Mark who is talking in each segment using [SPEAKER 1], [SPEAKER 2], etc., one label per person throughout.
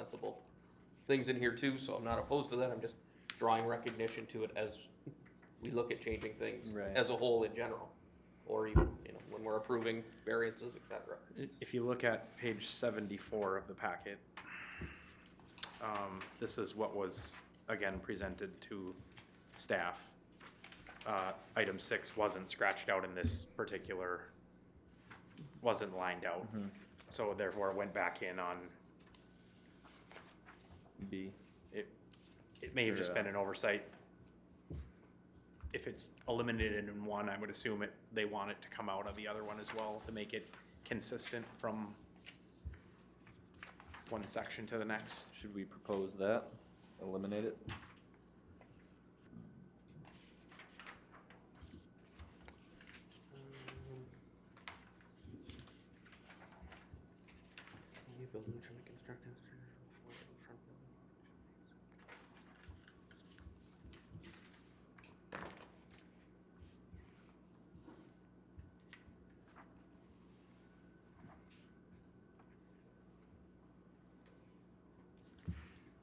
[SPEAKER 1] sensible things in here too, so I'm not opposed to that, I'm just drawing recognition to it as we look at changing things
[SPEAKER 2] Right.
[SPEAKER 1] as a whole in general, or even, you know, when we're approving variances, et cetera.
[SPEAKER 2] I- If you look at page seventy-four of the packet, um, this is what was, again, presented to staff. Uh, item six wasn't scratched out in this particular, wasn't lined out, so therefore it went back in on,
[SPEAKER 3] B.
[SPEAKER 2] it, it may have just been
[SPEAKER 3] Yeah.
[SPEAKER 2] an oversight. If it's eliminated in one, I would assume it, they want it to come out of the other one as well to make it consistent from one section to the next.
[SPEAKER 3] Should we propose that? Eliminate it?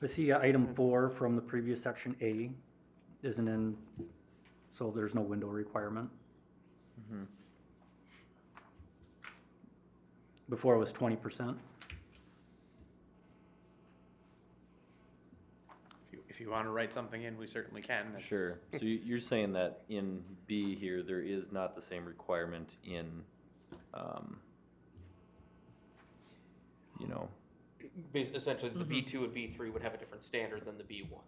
[SPEAKER 4] I see uh,
[SPEAKER 1] Mm-hmm.
[SPEAKER 4] item four from the previous section A isn't in, so there's no window requirement.
[SPEAKER 3] Mhm.
[SPEAKER 4] Before it was twenty percent.
[SPEAKER 2] If you, if you want to write something in, we certainly can. It's-
[SPEAKER 3] Sure. So you- you're saying that in B here, there is not the same requirement in, um, you know,
[SPEAKER 1] Bas- Essentially, the B two and B three would have a different standard than the B one.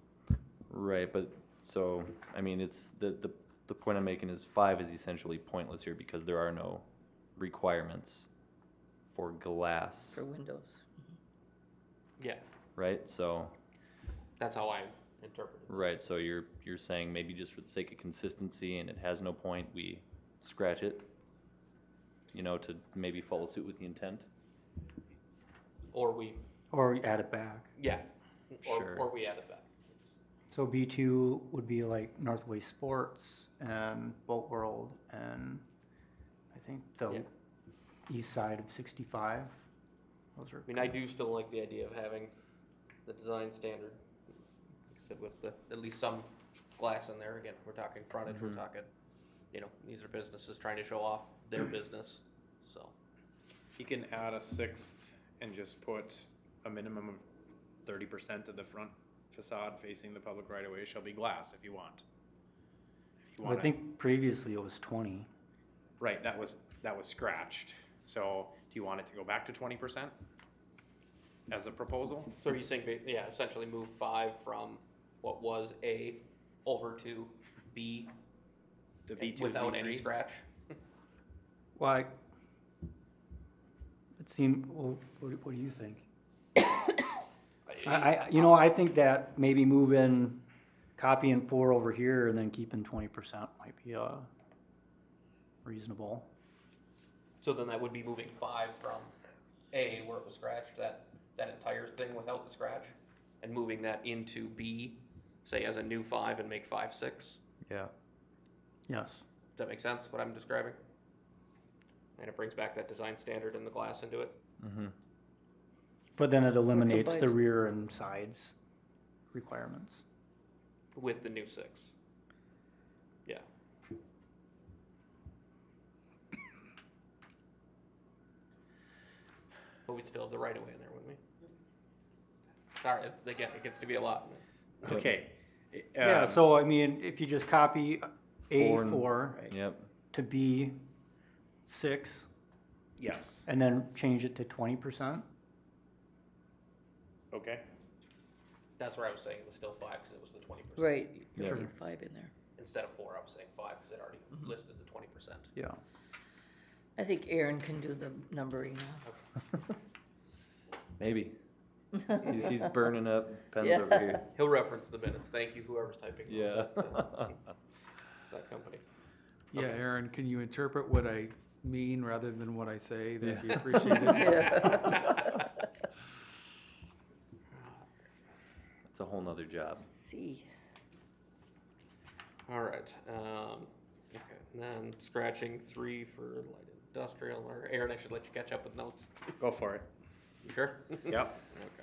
[SPEAKER 3] right, but, so, I mean, it's, the, the, the point I'm making is five is essentially pointless here because there are no requirements for glass,
[SPEAKER 5] for windows.
[SPEAKER 1] Yeah,
[SPEAKER 3] right? So,
[SPEAKER 1] that's how I interpret it.
[SPEAKER 3] right, so you're, you're saying maybe just for the sake of consistency and it has no point, we scratch it? You know, to maybe follow suit with the intent?
[SPEAKER 1] Or we,
[SPEAKER 4] Or we add it back.
[SPEAKER 1] yeah, or,
[SPEAKER 3] Sure.
[SPEAKER 1] or we add it back.
[SPEAKER 4] So B two would be like Northway Sports and Boat World and I think
[SPEAKER 1] Yeah.
[SPEAKER 4] the east side of sixty-five. Those are.
[SPEAKER 1] I mean, I do still like the idea of having the design standard, like I said, with the, at least some glass in there, again, we're talking frontage, we're
[SPEAKER 2] Mm-hmm.
[SPEAKER 3] Mhm.
[SPEAKER 1] talking, you know, these are businesses trying to show off their business, so.
[SPEAKER 2] You can add a sixth and just put a minimum of thirty percent of the front facade facing the public right of way shall be glass if you want. If you
[SPEAKER 4] I
[SPEAKER 2] wanna-
[SPEAKER 4] think previously it was twenty.
[SPEAKER 2] Right, that was, that was scratched. So do you want it to go back to twenty percent as a proposal?
[SPEAKER 1] So are you saying, ba- yeah, essentially move five from what was A over to B
[SPEAKER 2] The B two, B
[SPEAKER 1] without any
[SPEAKER 2] three?
[SPEAKER 1] scratch?
[SPEAKER 4] Well, I- it seemed, well, what, do- what do you think? I, I, you know, I think that maybe moving, copying four over here and then keeping twenty percent might be, uh, reasonable.
[SPEAKER 1] So then that would be moving five from A where it was scratched, that, that entire thing without the scratch, and moving that into B, say as a new five and make five six?
[SPEAKER 3] Yeah.
[SPEAKER 4] Yes.
[SPEAKER 1] Does that make sense, what I'm describing? And it brings back that design standard and the glass into it?
[SPEAKER 3] Mm-hmm.
[SPEAKER 4] But then it eliminates the
[SPEAKER 5] combining.
[SPEAKER 4] rear and sides requirements.
[SPEAKER 1] With the new six. Yeah. But we'd still have the right of way in there, wouldn't we? Sorry, it's, again, it gets to be a lot.
[SPEAKER 2] Okay.
[SPEAKER 4] Yeah,
[SPEAKER 2] Um,
[SPEAKER 4] so I mean, if you just copy A
[SPEAKER 3] Four and-
[SPEAKER 4] four
[SPEAKER 3] Yep.
[SPEAKER 4] to B six
[SPEAKER 2] Yes,
[SPEAKER 4] and then change it to twenty percent?
[SPEAKER 2] okay.
[SPEAKER 1] That's where I was saying it was still five, cause it was the twenty percent.
[SPEAKER 5] Right,
[SPEAKER 3] Yeah.
[SPEAKER 5] putting five in there.
[SPEAKER 1] Instead of four, I was saying five, cause it already
[SPEAKER 5] Mm-hmm.
[SPEAKER 1] listed the twenty percent.
[SPEAKER 4] Yeah.
[SPEAKER 5] I think Aaron can do the numbering
[SPEAKER 3] Maybe.
[SPEAKER 5] now.
[SPEAKER 3] He's, he's burning up pens
[SPEAKER 5] Yeah.
[SPEAKER 3] over here.
[SPEAKER 1] He'll reference the minutes, thank you whoever's typing. those
[SPEAKER 3] Yeah.
[SPEAKER 1] at, uh, That company.
[SPEAKER 6] Yeah, Aaron, can you interpret what I mean rather than what I say? That'd be
[SPEAKER 3] Yeah.
[SPEAKER 6] appreciated.
[SPEAKER 5] Yeah.
[SPEAKER 3] It's a whole nother job.
[SPEAKER 5] See,
[SPEAKER 1] All right, um, okay, and then scratching three for light industrial, or Aaron, I should let you catch up with notes.
[SPEAKER 2] Go for it.
[SPEAKER 1] You sure?
[SPEAKER 2] Yep.
[SPEAKER 1] Okay.